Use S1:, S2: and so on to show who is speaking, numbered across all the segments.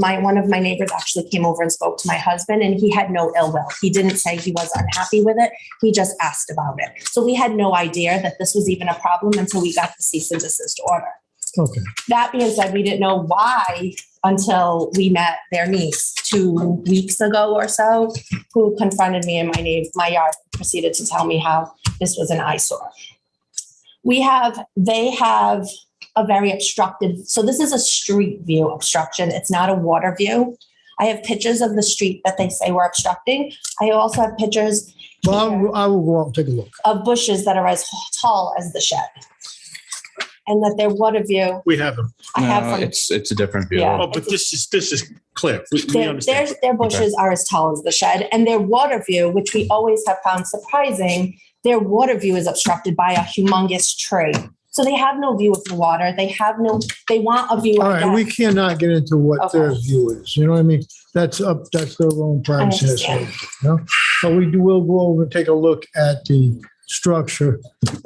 S1: my, one of my neighbors actually came over and spoke to my husband and he had no ill will. He didn't say he was unhappy with it. He just asked about it. So we had no idea that this was even a problem until we got the cease and desist order.
S2: Okay,
S1: That being said, we didn't know why until we met their niece two weeks ago or so, who confronted me in my name, my yard, proceeded to tell me how this was an eyesore. We have, they have a very obstructed, so this is a street view obstruction. It's not a water view. I have pictures of the street that they say we're obstructing. I also have pictures
S2: well, I will- I will go out and take a look.
S1: of bushes that are as tall as the shed. And that they're water view.
S3: We have them.
S1: I have
S4: No,
S1: from
S4: it's, it's a different view.
S1: Yeah.
S3: Oh, but this is, this is clear. We- We
S1: Their, their,
S3: understand.
S1: their bushes are as tall as the shed and their water view, which we always have found surprising, their water view is obstructed by a humongous tree. So they have no view of the water. They have no, they want a view.
S2: All
S1: of
S2: right, we
S1: that.
S2: cannot get into what their
S1: Okay.
S2: view is, you know what I mean? That's up, that's their own privacy, that's
S1: understand.
S2: what- no? But we do, will go over and take a look at the structure,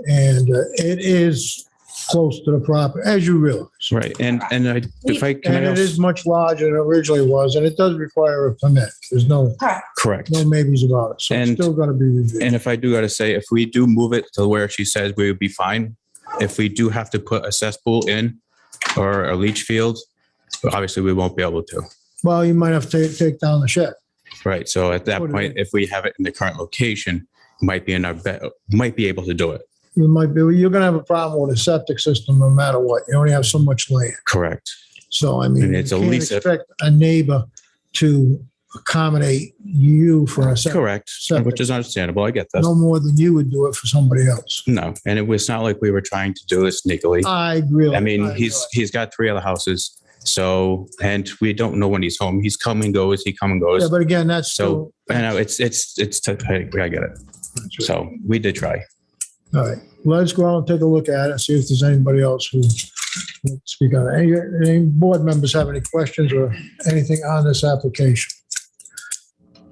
S2: and uh, it is close to the property, as you realize.
S4: Right, and, and I, if I, can
S2: And
S4: I
S2: it
S4: also?
S2: is much larger than it originally was, and it does require a permit. There's no,
S1: Correct.
S4: Correct.
S2: no maybes about it, so it's
S4: And-
S2: still gonna be reviewed.
S4: And if I do gotta say, if we do move it to where she says we would be fine, if we do have to put a cesspool in or a leach field, obviously we won't be able to.
S2: Well, you might have to take, take down the shed.
S4: Right, so at that
S2: Totally.
S4: point, if we have it in the current location, might be in our, be- might be able to do it.
S2: You might be, you're gonna have a problem with a septic system no matter what. You only have so much land.
S4: Correct.
S2: So I mean,
S4: And
S2: you
S4: it's a
S2: can't
S4: lease.
S2: expect a neighbor to accommodate you for a septic,
S4: Correct, which is understandable. I get that.
S2: no more than you would do it for somebody else.
S4: No, and it was not like we were trying to do this sneakily.
S2: I really.
S4: I mean, he's, he's got three other houses. So, and we don't know when he's home. He's come and goes, he come and
S2: Yeah,
S4: goes.
S2: but again, that's
S4: So,
S2: so.
S4: I know, it's, it's, it's, technically, I get it. So we did try.
S2: All right, let's go out and take a look at it, see if there's anybody else who would speak on it. Any, any board members have any questions or anything on this application?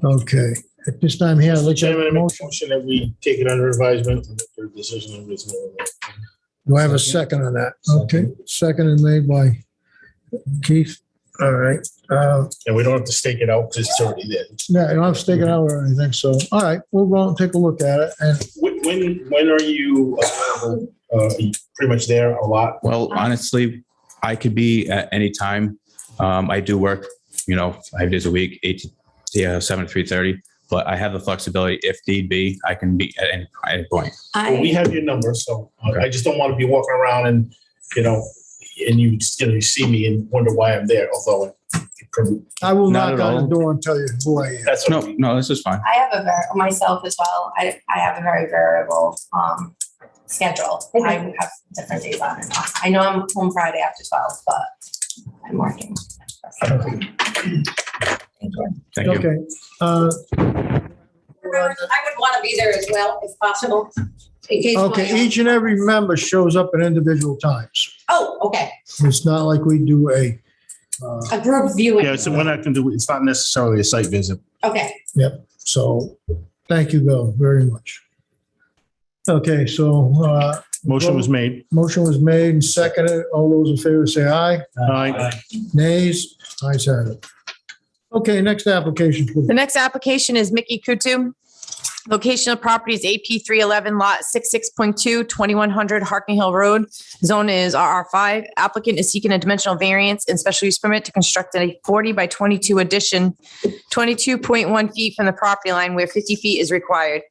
S2: Okay, at this time here, I'd like to have
S3: Chairman, I
S2: a
S3: make a
S2: motion.
S3: motion that we take it under advisement and for decision on this.
S2: Do I have a second on that? Okay, second and made by Keith. All right, uh,
S3: And we don't have to stake it out because it's already there.
S2: yeah, I don't have to take it out or anything, so, all right, we'll go out and take a look at it and
S3: When, when- when are you, available? uh, are you pretty much there a lot?
S4: Well, honestly, I could be at any time. Um, I do work, you know, five days a week, eight, to- yeah, seven to three thirty. But I have the flexibility if need be, I can be at any, at any point.
S3: Well, We
S1: I,
S3: have your number, so uh, I just don't want to be walking around and, you know, and you, you know, you see me and wonder why I'm there, although it could-
S2: I will
S4: Not
S2: knock
S4: at
S2: on
S4: all.
S2: the door and tell you who I am.
S3: that's. what
S4: No,
S3: I mean.
S4: no, this is fine.
S1: I have a, ver- myself as well, I, I have a very variable, um, schedule. I have different days on and off. I know I'm home Friday after twelve, but I'm working.
S4: Thank you.
S2: Okay. uh,
S5: Remember, I would want to be there as well if possible. in case my-
S2: Okay, each and every member shows up at individual times.
S5: Oh, okay.
S2: It's not like we do a, uh,
S5: A group viewing.
S3: Yeah, so we're not going to do, it's not necessarily a site visit.
S5: Okay.
S2: so, thank you, Bill, very much. Okay, so uh,
S3: Motion was made.
S2: motion was made and seconded. All those in favor say aye.
S3: Aye.
S2: Nays, ayes have it. Okay, next application, please.
S6: The next application is Mickey Kutu. Location of property is AP three eleven lot 66.2, 2100 Harking Hill Road. Zone is RR five. Applicant is seeking a dimensional variance and special use permit to construct a forty by twenty-two addition, twenty-two point one feet from the property line where fifty feet is required.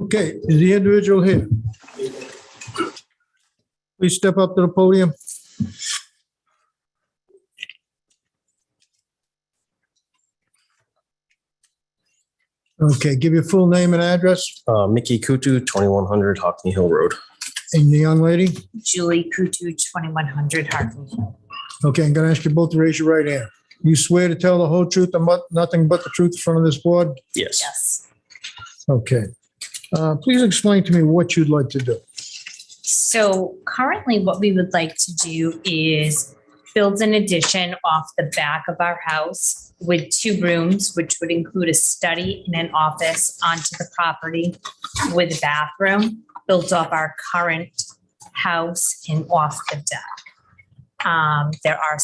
S2: Okay, is the individual here? Please step up to the podium. Okay, give your full name and address,
S7: Uh, Mickey Kutu, 2100 Hockney Hill Road.
S2: and the young lady.
S8: Julie Kutu, 2100 Hartley.
S2: Okay, I'm gonna ask you both to raise your right hand. You swear to tell the whole truth and but, nothing but the truth in front of this board?
S7: Yes.
S8: Yes.
S2: Okay. Uh, please explain to me what you'd like to do.
S8: So currently what we would like to do is build an addition off the back of our house with two rooms, which would include a study and an office onto the property with a bathroom, built off our current house and off the deck. Um, there are